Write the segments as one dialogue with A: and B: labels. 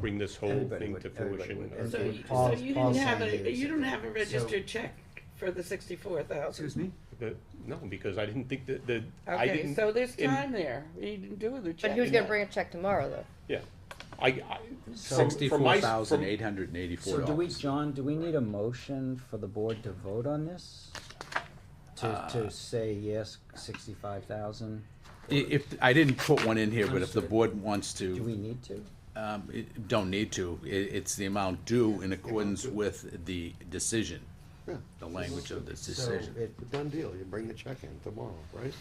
A: bring this whole
B: Everybody
A: thing
B: would-
A: to
B: everybody
A: fruition. uh,
B: would.
C: So,
B: Okay,
C: you- so
B: Paul's-
C: you didn't
B: Paul's
C: have
B: saying
C: a,
B: there's
C: you
B: a-
C: don't have a registered
B: So-
C: check for the sixty-four thousand?
D: Excuse me?
A: But, no, because I didn't think that, the, I
C: Okay,
A: didn't.
C: so there's
A: in-
C: time there, you didn't do the
E: But
C: check.
E: he was gonna bring a check tomorrow, though.
A: Yeah, I, I. from- from
F: Sixty-four
A: my-
F: thousand
A: from-
F: eight hundred and
B: So
F: eighty-four
B: do we,
F: dollars.
B: John, do we need a motion for the board to vote on this? To, to say yes, sixty-five thousand?
F: If, I didn't put one in here, but if the
B: Understood.
F: board wants
B: Do
F: to,
B: we need to?
F: um, it- don't need to, i it's the amount due in accordance with the decision.
G: Yeah.
F: The language of this
B: So
F: decision,
B: it,
G: Done deal, you bring the check in tomorrow, right?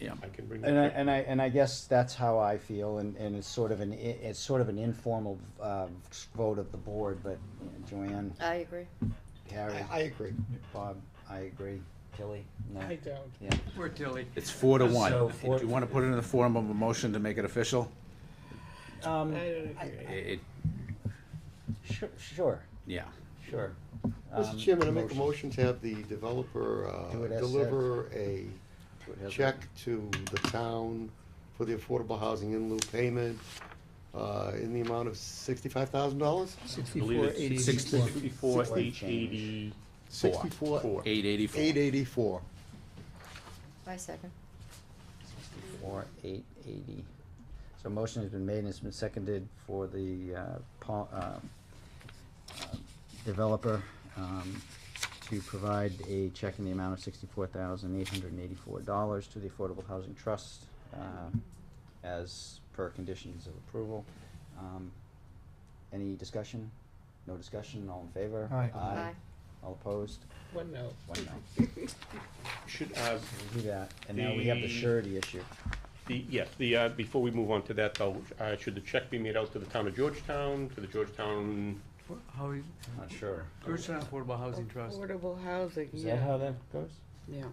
F: yeah.
A: I can bring.
B: And I,
A: that
B: and I, and I guess that's how I feel, and, and it's sort of an, i- it's sort of an informal, uh, vote of the board, but you know, Joanne,
E: I agree.
B: Harry,
G: I agree.
B: Bob, I agree, Tilly, no,
C: I don't.
B: yeah.
D: Poor Tilly.
F: It's four to one.
B: So
F: Do you wanna put it in the form of a motion to make it official?
C: I
B: Um,
C: don't
F: I-
C: agree.
F: It,
B: sure, sure,
F: yeah.
B: sure. Um,
G: Mr. Chairman, I make a motion to have the developer uh,
B: Do it as
G: deliver a
B: it as
G: check to the town for the affordable housing in lieu payment uh, in the amount of sixty-five thousand dollars?
A: I believe
D: Sixty-four
A: it's Sixty-four,
D: eighty.
B: Sixty-four
A: eight
B: change.
A: eighty.
G: Sixty-four,
F: Eight
G: eight
F: eighty-four.
G: eighty-four.
E: I second.
B: Four, eight, eighty. So motion has been made and it's been seconded for the, uh, Paul, uh, uh, developer, um, to provide a check in the amount of sixty-four thousand eight hundred and eighty-four dollars to the Affordable Housing Trust, uh, as per conditions of approval. Um, any discussion? No discussion, all in favor?
D: Aye.
E: Aye.
B: All opposed?
C: One no.
B: One no.
A: Should, uh,
B: We'll do that, and now we have the
A: The-
B: surety issue.
A: The, yes, the, uh, before we move on to that though, uh, should the check be made out to the town of Georgetown, to the Georgetown,
D: How, are you-
B: Not sure.
D: Georgetown Affordable Housing Trust.
C: Affordable housing,
B: Is that how
C: yeah,
B: that goes?
C: yeah.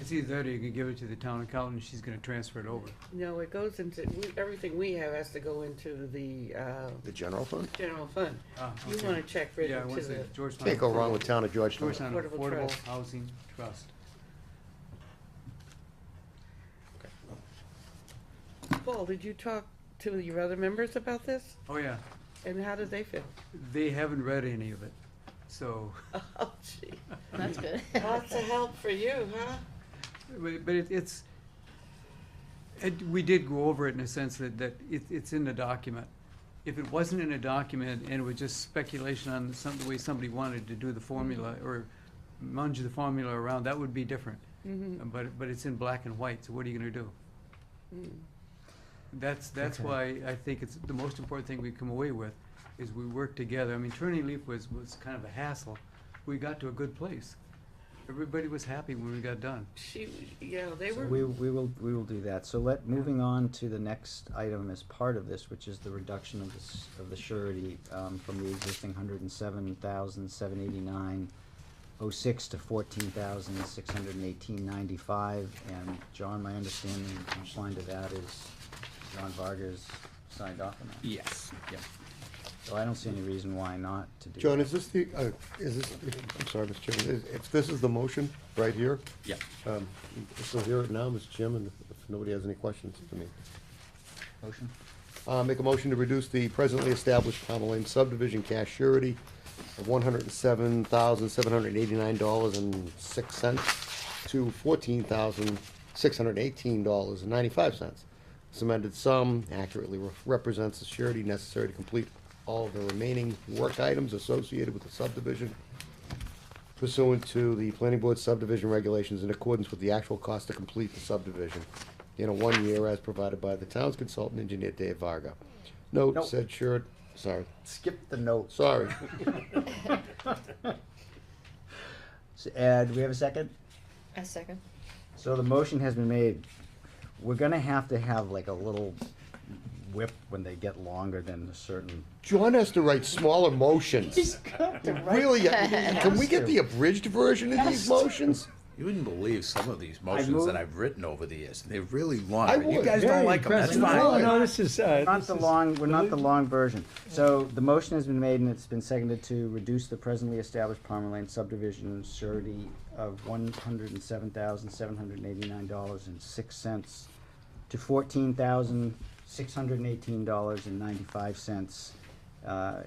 D: It's either that or you can give it to the town accountant, she's gonna transfer it over.
C: No, it goes into, we- everything we have has to go into the, uh,
G: The general fund?
C: general fund.
D: Ah,
C: You
D: okay.
C: want a check
D: Yeah,
C: written
D: I
C: to
D: want the
C: the,
D: Georgetown.
G: Can't go wrong
D: Affordable-
G: with town of Georgetown.
D: Georgetown
C: Affordable
D: Affordable
C: Trust.
D: Housing Trust.
C: Paul, did you talk to your other members about this?
D: Oh, yeah,
C: And how did they feel?
D: they haven't read any of it, so,
C: Oh, gee,
E: That's good.
C: lots of help for you, huh?
D: but but it- it's, it, we did go over it in a sense that, that it, it's in the document. If it wasn't in a document and it was just speculation on some, the way somebody wanted to do the formula or munge the formula around, that would be different.
C: Mhm.
D: But, but it's in black and white, so what are you gonna do?
C: Mm.
D: That's, that's
B: Okay.
D: why I think it's, the most important thing we've come away with is we work together. I mean, Turning Leaf was, was kind of a hassle. We got to a good place. Everybody was happy when we got done.
C: She, yeah, they
B: So
C: were.
B: we, we will, we will do that. So let, moving on to the next item as part of this, which is the reduction of this, of the surety, um, from the existing hundred and seven thousand, seven eighty-nine oh six to fourteen thousand, six hundred and eighteen ninety-five. And John, my understanding, in line to that is John Vargas signed off on that.
F: Yes, yeah.
B: So I don't see any reason why not to do that.
G: John, is this the, uh, is this, I'm sorry, Mr. Chairman, is- if this is the motion, right here?
F: Yeah.
G: Um, So here it now, Mr. Chairman, if nobody has any questions for me.
B: Motion?
G: Uh, Make a motion to reduce the presently established Palmer Lane subdivision cash surety of one hundred and seven thousand, seven hundred and eighty-nine dollars and six cents to fourteen thousand, six hundred and eighteen dollars and ninety-five cents. This amended sum accurately re- represents the surety necessary to complete all the remaining work items associated with the subdivision pursuant to the planning board subdivision regulations in accordance with the actual cost to complete the subdivision in a one year as provided by the town's consultant engineer Dave Varga. Note
B: Nope.
G: said sure, sorry,
B: Skip the notes.
G: sorry.
B: S- Uh, do we have a second?
E: I second.
B: So the motion has been made. We're gonna have to have like a little whip when they get longer than a certain.
G: John has to write smaller motions. Really, uh, can we get the abridged version of these motions?
F: You wouldn't believe some of these motions
B: move-
F: that I've written over the years. They're really long.
G: I
F: but You
G: would.
F: guys
G: Very
F: don't like them, that's
G: impressive.
F: fine.
G: No, no,
D: this is,
B: Not the long, we're not the long version. So the motion has been made and it's been seconded to reduce the presently established Palmer Lane subdivision surety of one hundred and seven thousand, seven hundred and eighty-nine dollars and six cents to fourteen thousand, six hundred and eighteen dollars and ninety-five cents uh,